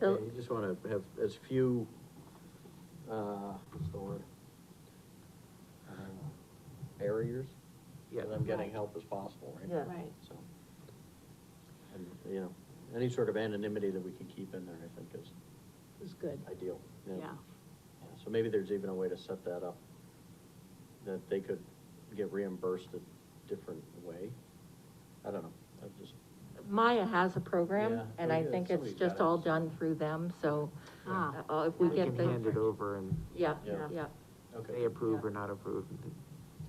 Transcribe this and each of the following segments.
Yeah, So- you just wanna have as few, uh, what's the word? Um, Barriers? Yeah. That I'm getting Right. help as possible, right? Yeah. Right. So. And, you know, any sort of anonymity that we can keep in there, I think is It's good, ideal. yeah. Yeah, So maybe there's even a way to set that up, that they could get reimbursed a different way. I don't know, I'm just, Maya has a Yeah, program, and I pretty good. think it's Somebody's got just it. all done through them, so, Ah, uh, if we We get can hand it the, over and yeah, Yeah. yeah. okay, they approve or not approve.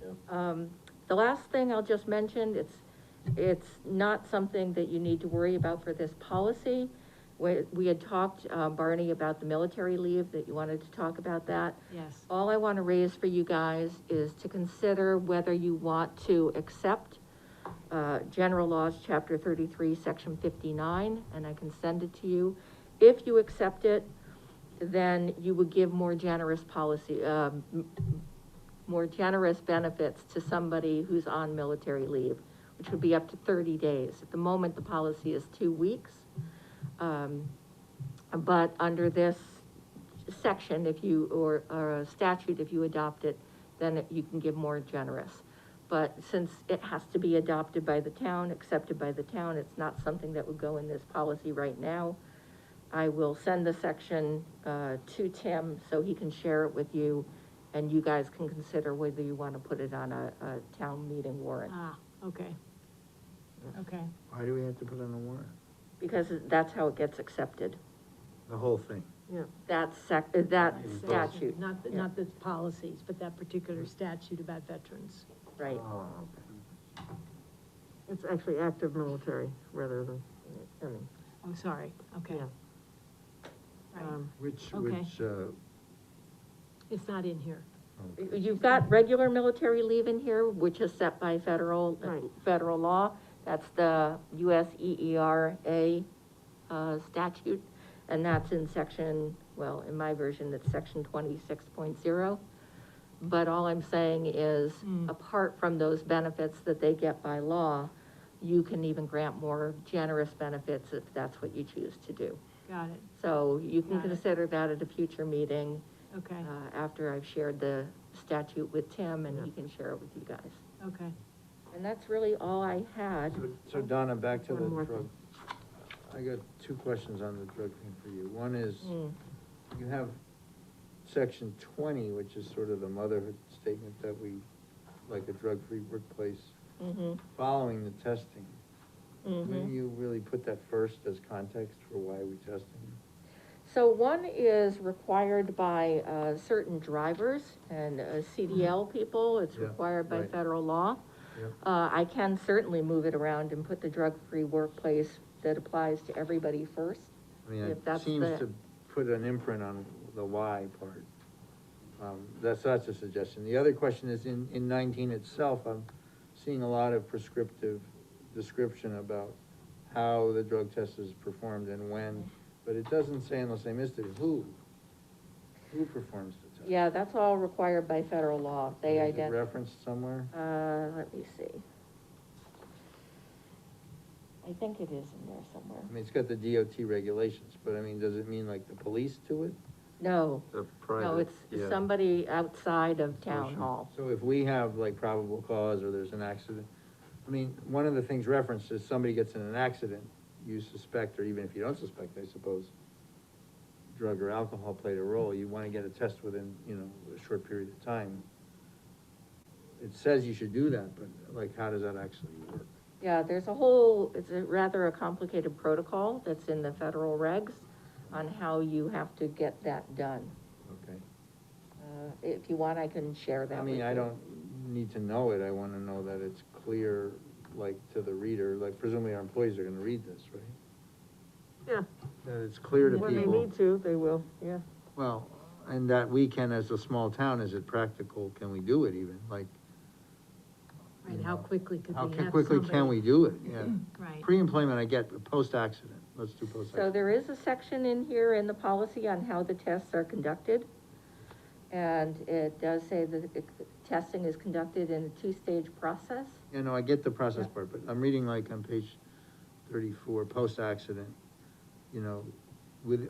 yeah. Um, the last thing I'll just mention, it's, it's not something that you need to worry about for this policy. We, we had talked, uh, Barney, about the military leave, that you wanted to talk about that. Yes. All I want to raise for you guys is to consider whether you want to accept uh, General Laws, Chapter 33, Section 59, and I can send it to you. If you accept it, then you would give more generous policy, um, m- m- more generous benefits to somebody who's on military leave, which would be up to 30 days. At the moment, the policy is two weeks. Um, But under this section, if you, or, or a statute, if you adopt it, then you can give more generous. But since it has to be adopted by the town, accepted by the town, it's not something that would go in this policy right now. I will send the section, uh, to Tim so he can share it with you and you guys can consider whether you want to put it on a, a town meeting warrant. Ah, okay. Okay, Why do we have to put on a warrant? Because that's how it gets accepted. The whole thing. That sec, that It's that- statute, not, the- Yeah. not the policies, but that particular statute about veterans. right? Oh, It's actually active military rather than, I mean, I'm sorry, okay. Yeah. Right, um, Which, Okay. which, uh, it's not in here. You've got regular military leave in here, which is set by federal, uh, Right. federal law. That's the E US EERA, uh, statute, and that's in section, well, in my version, it's section twenty-six point zero. But all I'm saying is, Mm. apart from those benefits that they get by law, you can even grant more generous benefits if that's what you choose to do. Got it, So you can Got it. consider that at a future meeting, okay, uh, after I've shared the statute with Tim and he can share it with you guys. okay. And that's really all I had. so Donna, back to the One more drug. I got two questions on the drug thing for you. One is, Mm, you have section twenty, which is sort of the motherhood statement that we, like a drug-free workplace, mhm, following the testing. Wouldn't mhm. you really put that first as context for why we testing? So one is required by, uh, certain drivers and uh, CDL people, it's Yeah, required by right. federal law. Yeah. Uh, I can certainly move it around and put the drug-free workplace that applies to everybody first. I mean, If it that's the- seems to put an imprint on the why part. Um, that's, that's a suggestion. The other question is, in, in nineteen itself, I'm seeing a lot of prescriptive description about how the drug test is performed and when, but it doesn't say, unless I missed it, who? Who performs the test? Yeah, that's all required by federal law, they Is it identify. Referenced somewhere? Uh, let me see. I think it is in there somewhere. I mean, it's got the DOT regulations, but I mean, does it mean like the police do it? No, The no, private, it's yeah. somebody outside of town Solution. hall. So if we have like probable cause or there's an accident, I mean, one of the things referenced is somebody gets in an accident, you suspect, or even if you don't suspect, I suppose, drug or alcohol played a role, you wanna get a test within, you know, a short period of time. It says you should do that, but like, how does that actually work? Yeah, there's a whole, it's a rather a complicated protocol that's in the federal regs on how you have to get that done. Okay. Uh, if you want, I can share that I with mean, I you. don't need to know it, I wanna know that it's clear, like, to the reader, like presumably our employees are gonna read this, right? Yeah. That it's clear to people. when they need to, they will, yeah. Well, and that we can, as a small town, is it practical, can we do it even, like, Right, how quickly could how we ca- have quickly can somebody- we do it, yeah? Right, Pre-employment, I get, but post-accident, let's do So post-accident. there is a section in here in the policy on how the tests are conducted. And it does say that it- testing is conducted in a two-stage process. You know, I get the process Yeah. part, but I'm reading like on page thirty-four, post-accident, you know, with,